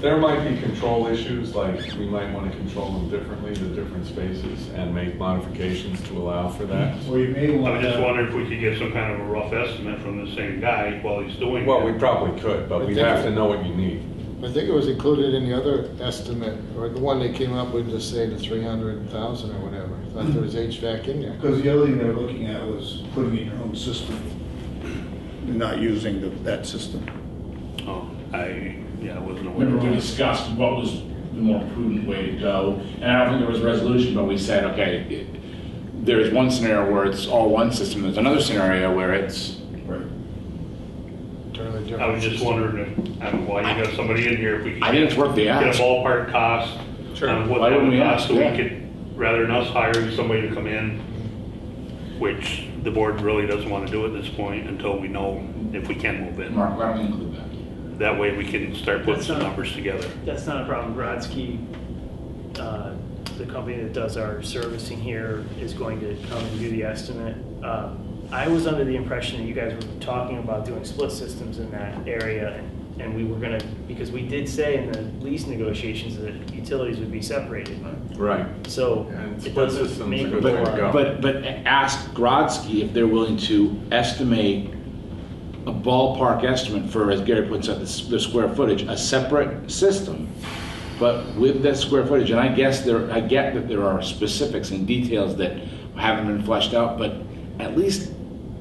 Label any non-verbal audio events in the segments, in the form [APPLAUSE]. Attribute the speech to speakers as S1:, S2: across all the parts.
S1: There might be control issues, like we might want to control them differently, the different spaces, and make modifications to allow for that.
S2: Or you may
S3: I was
S2: want
S3: just
S2: to,
S3: wondering if we could get some kind of a rough estimate from the same guy while he's doing
S1: Well, we
S3: that.
S1: probably could, but we'd have to know what you need.
S4: I think it was included in the other estimate, or the one they came up with to say the three hundred thousand or whatever. I thought there was HVAC in there.
S2: because the other thing they were looking at was putting in your own system, and not using the- that system.
S3: Oh, I, yeah, I wasn't aware.
S5: Remember, we
S3: of that.
S5: discussed what was the more prudent way to go, and I don't think there was a resolution, but we said, okay, it- there is one scenario where it's all one system, there's another scenario where it's,
S4: Turn the different
S3: I was just
S4: system.
S3: wondering if, I mean, while you got somebody in here, if we could.
S5: I think it's worth the
S3: Get
S5: ask.
S3: a ballpark cost
S1: Sure.
S3: on what
S5: Why
S3: that
S5: wouldn't
S3: would
S5: we
S3: cost,
S5: ask?
S3: so we
S5: Yeah.
S3: could, rather than us hiring somebody to come in, which the board really doesn't want to do at this point until we know if we can move in.
S5: Mark, why don't we include that?
S3: That way we can start putting
S6: That's
S3: some
S6: not-
S3: numbers together.
S6: That's not a problem. Brodsky, uh, the company that does our servicing here, is going to come and do the estimate. Uh, I was under the impression that you guys were talking about doing split systems in that area, and- and we were gonna, because we did say in the lease negotiations that utilities would be separated.
S1: Right.
S6: So
S1: And
S6: it
S1: split
S6: doesn't
S1: systems
S6: make
S1: are
S6: a
S1: good way to
S6: lot-
S1: go.
S5: But, but ask Grodzki if they're willing to estimate a ballpark estimate for, as Gary puts it, the s- the square footage, a separate system, but with that square footage, and I guess there, I get that there are specifics and details that haven't been fleshed out, but at least,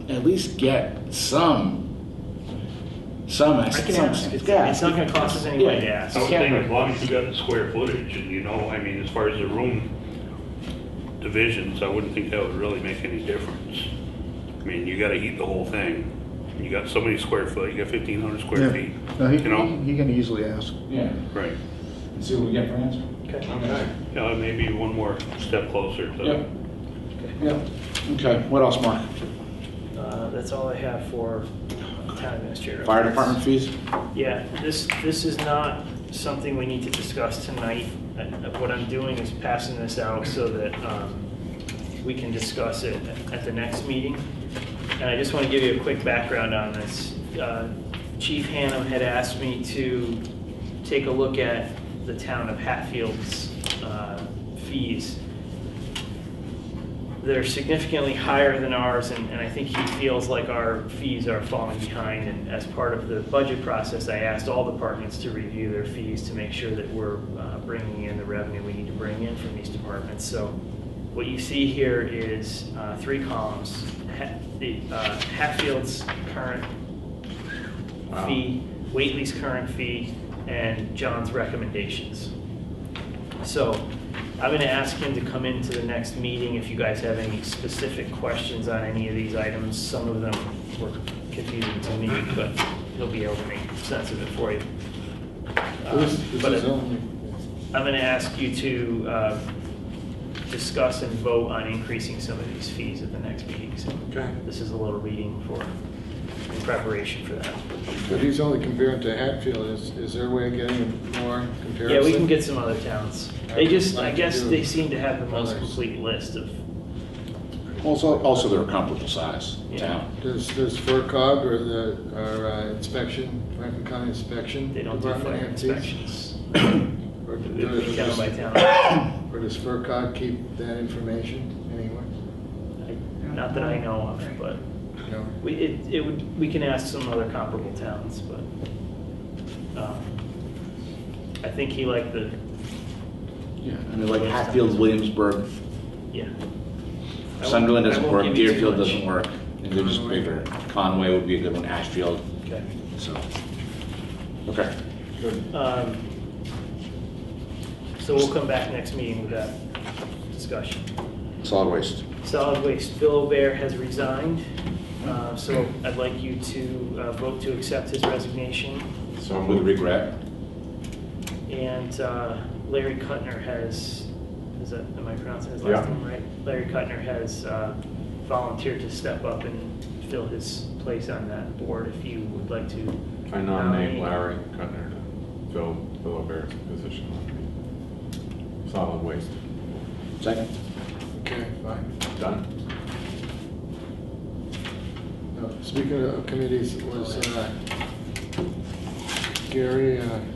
S5: at least get some, some,
S6: I
S5: estimate.
S6: can ask. It's it's not gonna cost us any money to ask.
S3: I would
S5: Yeah.
S3: think as long as you got the square footage, and you know, I mean, as far as the room divisions, I wouldn't think that would really make any difference. I mean, you gotta heat the whole thing. You got so many square foot, you got fifteen hundred
S2: Yeah.
S3: square feet,
S2: No, he,
S3: you know?
S2: he can easily ask.
S5: Yeah,
S3: Right.
S5: and see what we get for an answer.
S6: Okay.
S1: Okay.
S3: Yeah, maybe one more step closer
S5: Yep.
S3: to,
S5: Yep. Okay, what else, Mark?
S6: Uh, That's all I have for town administrator.
S5: Fire department fees?
S6: Yeah, this, this is not something we need to discuss tonight. Uh, What I'm doing is passing this out so that um, we can discuss it at the next meeting. And I just want to give you a quick background on this. Uh, Chief Hannum had asked me to take a look at the town of Hatfield's uh, fees they're significantly higher than ours, and, and I think he feels like our fees are falling behind. And as part of the budget process, I asked all departments to review their fees to make sure that we're uh, bringing in the revenue we need to bring in from these departments. So what you see here is uh, three columns. Ha- the, uh, Hatfield's current fee, Whately's current fee, and John's recommendations. So I'm going to ask him to come into the next meeting if you guys have any specific questions on any of these items. Some of them were confusing to me, but he'll be able to make sense of it for you. Uh,
S4: This this
S6: but
S4: is only,
S6: I'm going to ask you to uh, discuss and vote on increasing some of these fees at the next meeting. So
S1: Okay.
S6: This is a little reading for, in preparation for that.
S4: but he's only comparing to Hatfield. Is, is there a way of getting more comparison?
S6: Yeah, we can get some other towns. They just, I guess they seem to have the most
S4: Others.
S6: complete list of
S5: Also, also they're a comparable size
S6: Yeah.
S5: town.
S4: Does, does FERCog or the, or uh, inspection, Franklin County Inspection?
S6: They don't do
S4: Department
S6: fire
S4: have these?
S6: inspections.
S4: Or
S6: It'd
S4: do-
S6: be Town by
S4: does-
S6: town. [COUGHS]
S4: or does FERCog keep that information anywhere?
S6: I- Not that I know of, but
S4: No?
S6: we, it, it would, we can ask some other comparable towns, but, um, I think he liked the,
S5: Yeah, I mean, like Hatfield, Williamsburg,
S6: yeah. I won't-
S5: Sunderland
S6: I
S5: doesn't work,
S6: won't give you too
S5: Deerfield
S6: much.
S5: doesn't work, and they're just bigger. Conway would be a good one, Ashfield,
S6: Okay.
S5: so. Okay.
S6: Um, So we'll come back next meeting with that discussion.
S5: Solid waste.
S6: Solid Waste, Bill O'Bear has resigned, uh, so I'd like you to uh, vote to accept his resignation.
S1: So
S5: With
S1: moved.
S5: regret.
S6: And uh, Larry Cutner has, is that, am I pronouncing his last
S1: Yeah.
S6: name right? Larry Cutner has uh, volunteered to step up and fill his place on that board if you would like to.
S1: I nominate Larry Cutner to fill Philip position on solid waste.
S5: Second?
S4: Okay, fine.
S1: Done?
S4: No, Speaking of committees, was uh, Gary, uh,